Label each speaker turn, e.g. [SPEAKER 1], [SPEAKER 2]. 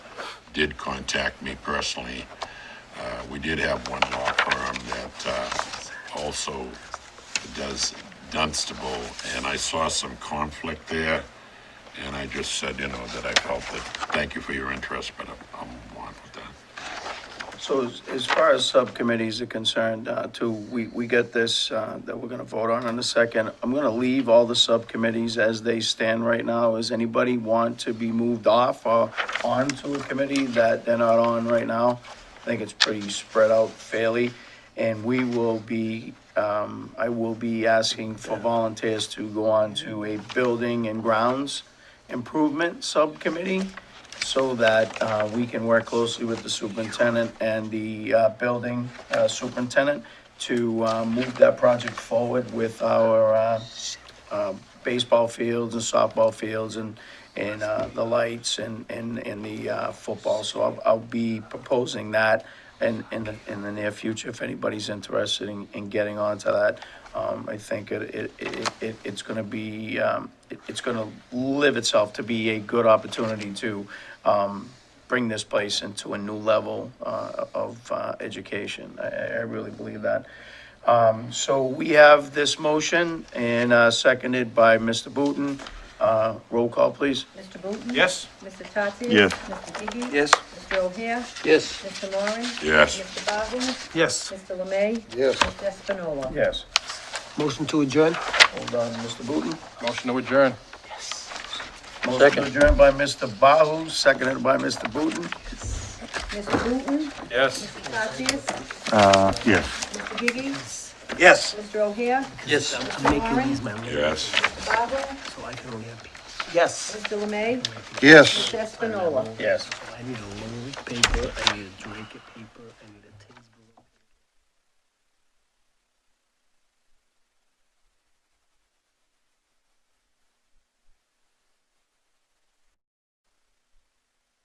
[SPEAKER 1] did contact me personally. Uh, we did have one law firm that, uh, also does Dunstable, and I saw some conflict there. And I just said, you know, that I felt that, thank you for your interest, but I'm, I'm on with that.
[SPEAKER 2] So as- as far as subcommittees are concerned, uh, too, we, we get this, uh, that we're gonna vote on in a second. I'm gonna leave all the subcommittees as they stand right now. Does anybody want to be moved off or onto a committee that they're not on right now? I think it's pretty spread out fairly, and we will be, um, I will be asking for volunteers to go on to a building and grounds improvement subcommittee so that uh, we can work closely with the superintendent and the uh, building uh, superintendent to uh, move that project forward with our uh, uh, baseball fields and softball fields and, and uh, the lights and, and, and the uh, football. So I'll, I'll be proposing that in, in the, in the near future, if anybody's interested in, in getting onto that. Um, I think it, it, it, it, it's gonna be, um, it- it's gonna live itself to be a good opportunity to, um, bring this place into a new level, uh, of, uh, education. I, I I really believe that. Um, so we have this motion and, uh, seconded by Mr. Booton. Uh, roll call, please.
[SPEAKER 3] Mr. Booton?
[SPEAKER 4] Yes.
[SPEAKER 3] Mr. Tatsias?
[SPEAKER 5] Yes.
[SPEAKER 3] Mr. Gigi?
[SPEAKER 4] Yes.
[SPEAKER 3] Mr. O'Hare?
[SPEAKER 6] Yes.
[SPEAKER 3] Mr. Moran?
[SPEAKER 1] Yes.
[SPEAKER 3] Mr. Bahu?
[SPEAKER 4] Yes.
[SPEAKER 3] Mr. Lemay?
[SPEAKER 6] Yes.
[SPEAKER 3] Mr. Espinola?
[SPEAKER 2] Yes.
[SPEAKER 6] Motion to adjourn?
[SPEAKER 2] Hold on, Mr. Booton.
[SPEAKER 4] Motion to adjourn.
[SPEAKER 2] Motion
[SPEAKER 6] Second.
[SPEAKER 2] adjourned by Mr. Bahu, seconded by Mr. Booton.
[SPEAKER 3] Mr. Booton?
[SPEAKER 4] Yes.
[SPEAKER 3] Mr. Tatsias?
[SPEAKER 5] Uh, yes.
[SPEAKER 3] Mr. Gigi?
[SPEAKER 4] Yes.
[SPEAKER 3] Mr. O'Hare?
[SPEAKER 6] Yes.
[SPEAKER 3] Mr. Moran?
[SPEAKER 1] Yes.
[SPEAKER 3] Mr. Bahu?
[SPEAKER 6] Yes.
[SPEAKER 3] Mr. Lemay?
[SPEAKER 6] Yes.
[SPEAKER 3] Mr. Espinola?
[SPEAKER 2] Yes.
[SPEAKER 6] I need a little paper, I need a drink of paper, I need a Tinsburg.